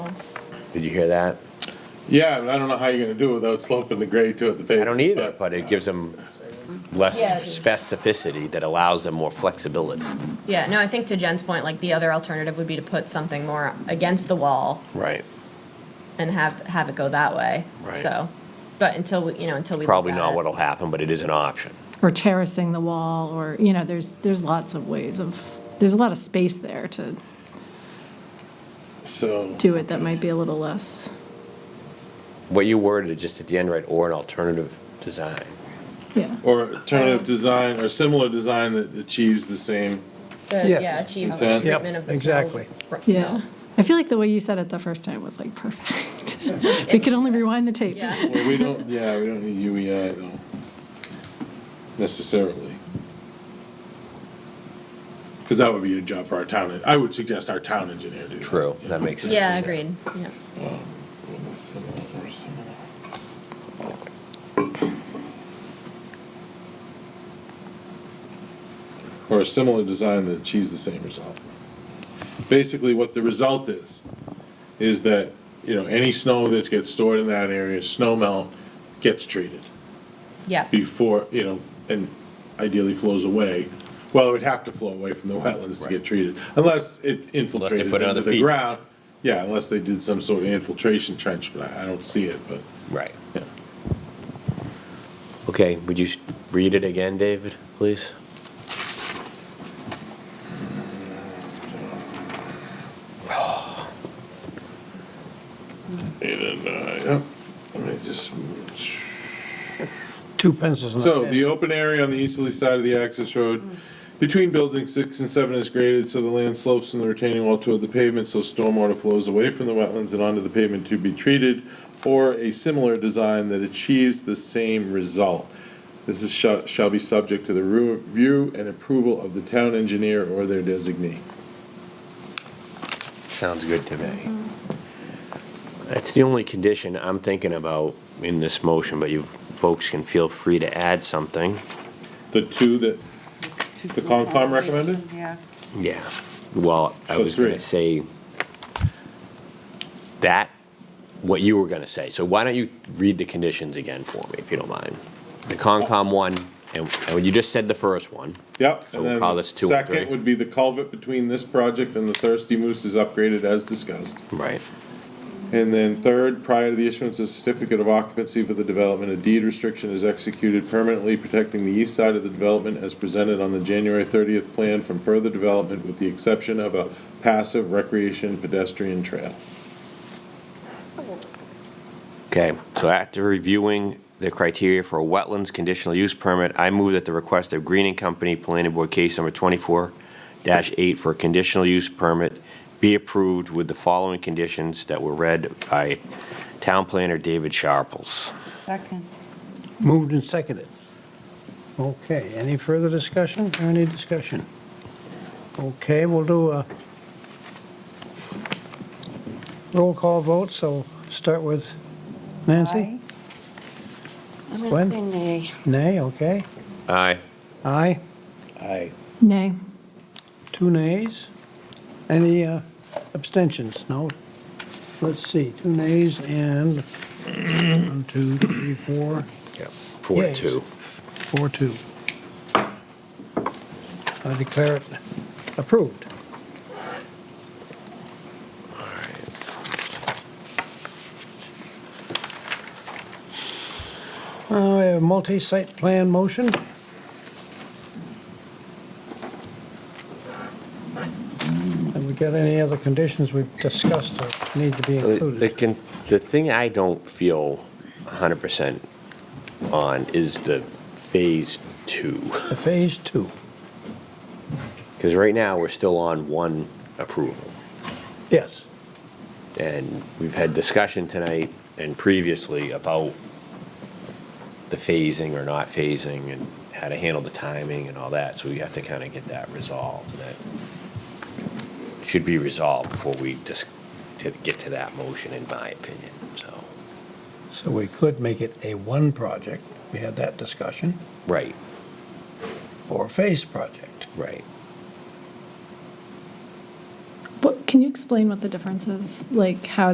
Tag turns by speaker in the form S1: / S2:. S1: Did you hear that?
S2: Yeah, but I don't know how you're gonna do it without sloping the grade to it, the pavement.
S1: I don't either, but it gives them less specificity that allows them more flexibility.
S3: Yeah, no, I think to Jen's point, like the other alternative would be to put something more against the wall
S1: Right.
S3: and have, have it go that way.
S1: Right.
S3: So, but until, we you know, until we. look
S1: Probably
S3: at
S1: not
S3: it.
S1: what'll happen, but it is an option.
S4: or terracing the wall, or, you know, there's, there's lots of ways of, there's a lot of space there to
S2: So,
S4: do it that might be a little less,
S1: What you worded just at the end, right, or an alternative design.
S4: yeah.
S2: or alternative design, or similar design that achieves the same,
S3: The-
S5: Yeah.
S3: Yeah, achieve the
S2: Consent.
S3: treatment of the.
S5: Yep, exactly.
S3: soil.
S4: Yeah. I feel like the way you said it the first time was like perfect. We could only rewind the tape.
S3: Yeah.
S2: well, we don't, yeah, we don't need UEI though, necessarily. Because that would be a job for our town, I would suggest our town engineer do that.
S1: That makes sense.
S3: Yeah, agreed, yeah.
S2: Or a similar design that achieves the same result. Basically, what the result is, is that, you know, any snow that gets stored in that area, snow melt, gets treated
S3: Yeah,
S2: before, you know, and ideally flows away. Well, it would have to flow away from the wetlands to get treated, unless it infiltrated
S1: put
S2: into
S1: another
S2: the
S1: feature.
S2: ground. Yeah, unless they did some sort of infiltration trench, but I, I don't see it, but,
S1: Right.
S2: yeah.
S1: Okay, would you s- read it again, David, please?
S2: Eight and nine, yep. Let me just.
S5: Two pencils in
S2: So the open area on the easterly side of the access road between buildings six and seven is graded, so the land slopes from the retaining wall toward the pavement, so stormwater flows away from the wetlands and onto the pavement to be treated, or a similar design that achieves the same result. This is, shall, shall be subject to the review and approval of the town engineer or their designee.
S1: Sounds good to me. That's the only condition I'm thinking about in this motion, but you folks can feel free to add something.
S2: The two that, The Concom recommended?
S6: Yeah.
S1: Yeah, well, I
S2: So
S1: was going
S2: three.
S1: to say that, what you were going to say. So why don't you read the conditions again for me, if you don't mind? The Concom one, and and you just said the first one.
S2: Yep.
S1: So
S2: and
S1: we'll
S2: then
S1: call this two and
S2: Second
S1: three.
S2: would be the culvert between this project and the Thirsty Moose is upgraded as discussed.
S1: Right.
S2: And then third, prior to the issuance of certificate of occupancy for the development, a deed restriction is executed permanently protecting the east side of the development as presented on the January thirtieth plan from further development with the exception of a passive recreation pedestrian trail.
S1: Okay, so after reviewing the criteria for a wetlands conditional use permit, I move that the request of Greening Company Planning Board Case Number 24-8 for a conditional use permit be approved with the following conditions that were read by Town Planner David Sharples.
S6: Second.
S5: Moved and seconded. Okay, any further discussion? Any discussion? Okay, we'll do a roll call vote, so start with Nancy?
S6: I'm
S5: Gwen?
S6: going to say nay.
S5: Nay, okay.
S1: Aye.
S5: Aye,
S1: Aye.
S4: Nay.
S5: two nays. Any uh, abstentions? No? Let's see, two nays and one, two, three, four,
S1: Four to
S5: Yes.
S1: two.
S5: four, two. I declare it approved. Uh, we have a multi-site plan motion. Have we got any other conditions we've discussed that need to be
S1: So the- the,
S5: included?
S1: con- the thing I don't feel 100% on is the Phase Two.
S5: The Phase two.
S1: Because right now, we're still on one approval.
S5: Yes.
S1: And we've had discussion tonight and previously about the phasing or not phasing and how to handle the timing and all that, so we have to kind of get that resolved. and That should be resolved before we just to get to that motion, in my opinion, so.
S5: So we could make it a one project, we had that discussion,
S1: Right,
S5: or a phase project.
S1: right.
S4: What, can you explain what the difference is? Like how